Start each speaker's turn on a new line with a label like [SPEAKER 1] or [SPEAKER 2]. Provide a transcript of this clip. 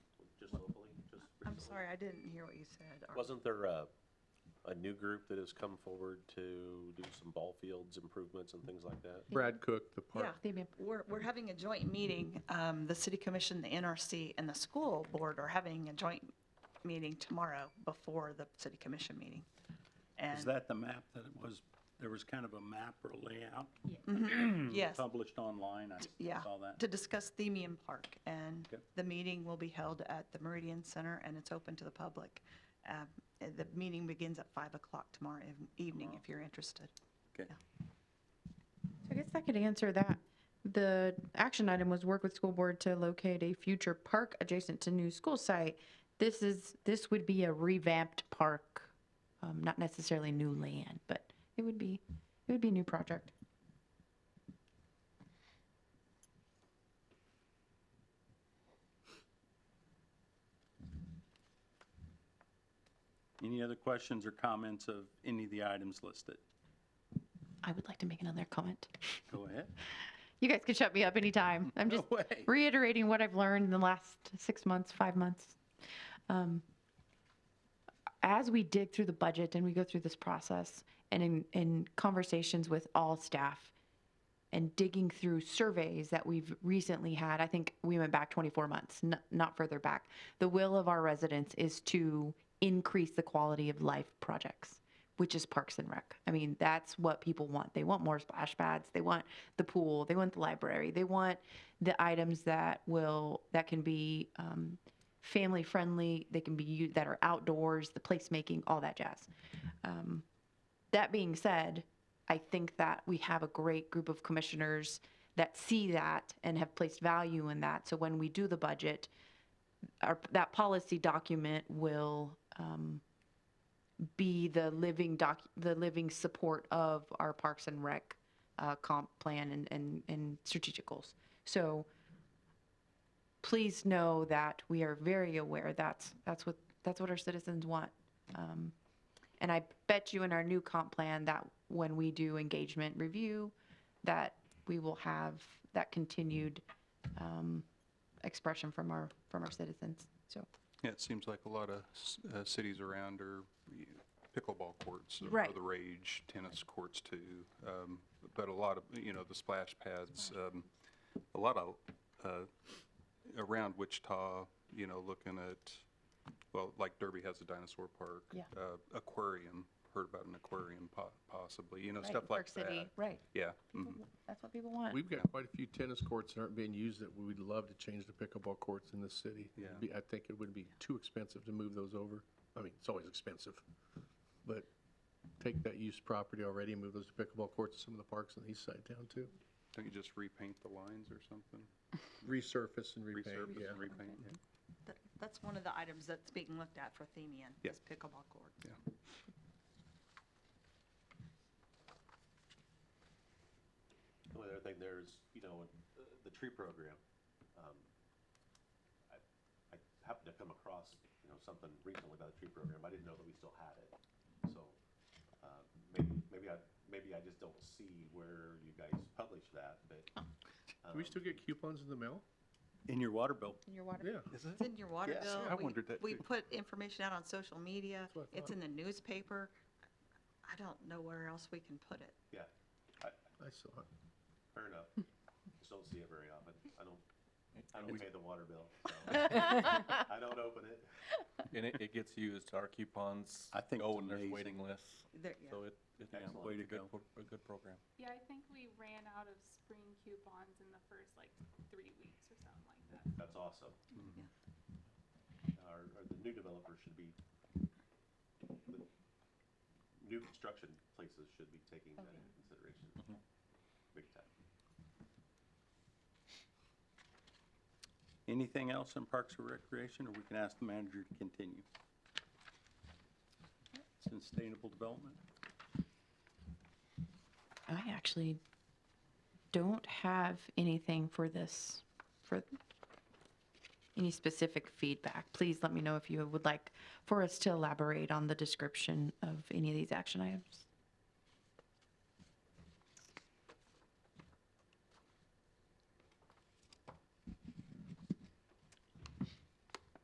[SPEAKER 1] Sorry, I didn't hear what you said. Are-
[SPEAKER 2] Wasn't there a, a new group that has come forward to do some ball fields improvements and things like that?
[SPEAKER 3] Brad Cook, the
[SPEAKER 1] Yeah,
[SPEAKER 3] park.
[SPEAKER 1] we're, we're having a joint meeting. Um, The city commission, the NRC, and the school board are having a joint meeting tomorrow before the city commission meeting.
[SPEAKER 4] Is
[SPEAKER 1] And,
[SPEAKER 4] that the map that it was, there was kind of a map or layout
[SPEAKER 1] yes,
[SPEAKER 4] published online?
[SPEAKER 1] yeah,
[SPEAKER 4] I saw that.
[SPEAKER 1] to discuss Themium Park. And
[SPEAKER 4] Okay.
[SPEAKER 1] the meeting will be held at the Meridian Center, and it's open to the public. Um, and The meeting begins at 5 o'clock tomorrow ev- evening, if you're interested.
[SPEAKER 4] Okay.
[SPEAKER 5] So I guess that could answer that. The action item was work with school board to locate a future park adjacent to new school site. This is, this would be a revamped park, um, not necessarily new land, but it would be, it would be a new project.
[SPEAKER 4] Any other questions or comments of any of the items listed?
[SPEAKER 5] I would like to make another comment.
[SPEAKER 4] Go ahead.
[SPEAKER 5] You guys can shut me up anytime. I'm
[SPEAKER 4] No
[SPEAKER 5] just
[SPEAKER 4] way.
[SPEAKER 5] reiterating what I've learned in the last six months, five months. Um, As we dig through the budget and we go through this process and in, in conversations with all staff and digging through surveys that we've recently had, I think we went back 24 months, n- not further back. The will of our residents is to increase the quality of life projects which is Parks and Rec. I mean, that's what people want. They want more splash pads. They want the pool. They want the library. They want the items that will that can be um, family friendly. They can be u- that are outdoors. The placemaking, all that jazz. Um, that being said, I think that we have a great group of commissioners that see that and have placed value in that. So when we do the budget, our, that policy document will. Um, be the living doc, the living support of our Parks and Rec uh, comp plan and, and, and strategic goals. So please know that we are very aware that's, that's what, that's what our citizens want. Um, And I bet you in our new comp plan that when we do engagement review, that we will have that continued um, expression from our, from our citizens, so.
[SPEAKER 6] Yeah, it seems like a lot of s- uh, cities around are y- pickleball courts are- are
[SPEAKER 5] Right.
[SPEAKER 6] the rage, tennis courts too. um, But a lot of, you know, the splash pads, um, a lot of, uh, around Wichita, you know, looking at, well, like Derby has a dinosaur park.
[SPEAKER 5] Yeah.
[SPEAKER 6] uh, Aquarium, heard about an aquarium po- possibly, you know,
[SPEAKER 5] Right,
[SPEAKER 6] stuff
[SPEAKER 5] Park
[SPEAKER 6] like
[SPEAKER 5] City,
[SPEAKER 6] that.
[SPEAKER 5] Right,
[SPEAKER 6] Yeah. mhm.
[SPEAKER 5] People- that's what people want.
[SPEAKER 3] We've got quite a few tennis courts that aren't being used that we'd love to change to pickleball courts in the city.
[SPEAKER 6] Yeah.
[SPEAKER 3] It'd be- I think it would be too expensive to move those over. I mean, it's always expensive. But take that used property already and move those to pickleball courts in some of the parks on the east side of town too.
[SPEAKER 6] Don't you just repaint the lines or something?
[SPEAKER 3] Resurface and repaint,
[SPEAKER 6] Resurface
[SPEAKER 3] yeah.
[SPEAKER 6] and repaint, yeah.
[SPEAKER 1] That- That's one of the items that's being looked at for Themium,
[SPEAKER 6] Yeah.
[SPEAKER 1] is pickleball courts.
[SPEAKER 2] The other thing there is, you know, the, the tree program. um, I I happened to come across, you know, something recently about the tree program. I didn't know that we still had it. So, uh, maybe, maybe I, maybe I just don't see where you guys publish that, but.
[SPEAKER 3] Do we
[SPEAKER 2] um,
[SPEAKER 3] still get coupons in the mail?
[SPEAKER 4] In your water bill.
[SPEAKER 5] In your water.
[SPEAKER 3] Yeah.
[SPEAKER 1] It's in your water
[SPEAKER 6] Yes,
[SPEAKER 1] bill.
[SPEAKER 6] I
[SPEAKER 1] We-
[SPEAKER 6] wondered that
[SPEAKER 1] We
[SPEAKER 6] too.
[SPEAKER 1] put information out on social media.
[SPEAKER 3] what I
[SPEAKER 1] It's
[SPEAKER 3] thought.
[SPEAKER 1] in the newspaper. I don't know where else we can put it.
[SPEAKER 2] Yeah, I-
[SPEAKER 3] I saw it.
[SPEAKER 2] fair enough. Just don't see it very often. I don't, I don't pay the water bill. so I don't open it.
[SPEAKER 7] And it, it gets used, our coupons.
[SPEAKER 4] I think
[SPEAKER 7] go
[SPEAKER 4] it's
[SPEAKER 7] Oh, and there's
[SPEAKER 4] amazing.
[SPEAKER 7] waiting lists,
[SPEAKER 1] There- yeah.
[SPEAKER 7] so it, it's
[SPEAKER 4] Excellent.
[SPEAKER 7] a
[SPEAKER 4] Way to
[SPEAKER 7] good,
[SPEAKER 4] go.
[SPEAKER 7] pro- a good program.
[SPEAKER 8] Yeah, I think we ran out of spring coupons in the first like three weeks or something like that.
[SPEAKER 2] That's awesome.
[SPEAKER 1] Yeah.
[SPEAKER 2] Our, our, the new developers should be, the new construction places should be taking that into consideration. Big time.
[SPEAKER 4] Anything else in Parks and Recreation, or we can ask the manager to continue? Sustainable Development?
[SPEAKER 5] I actually don't have anything for this, for any specific feedback. Please let me know if you would like for us to elaborate on the description of any of these action items.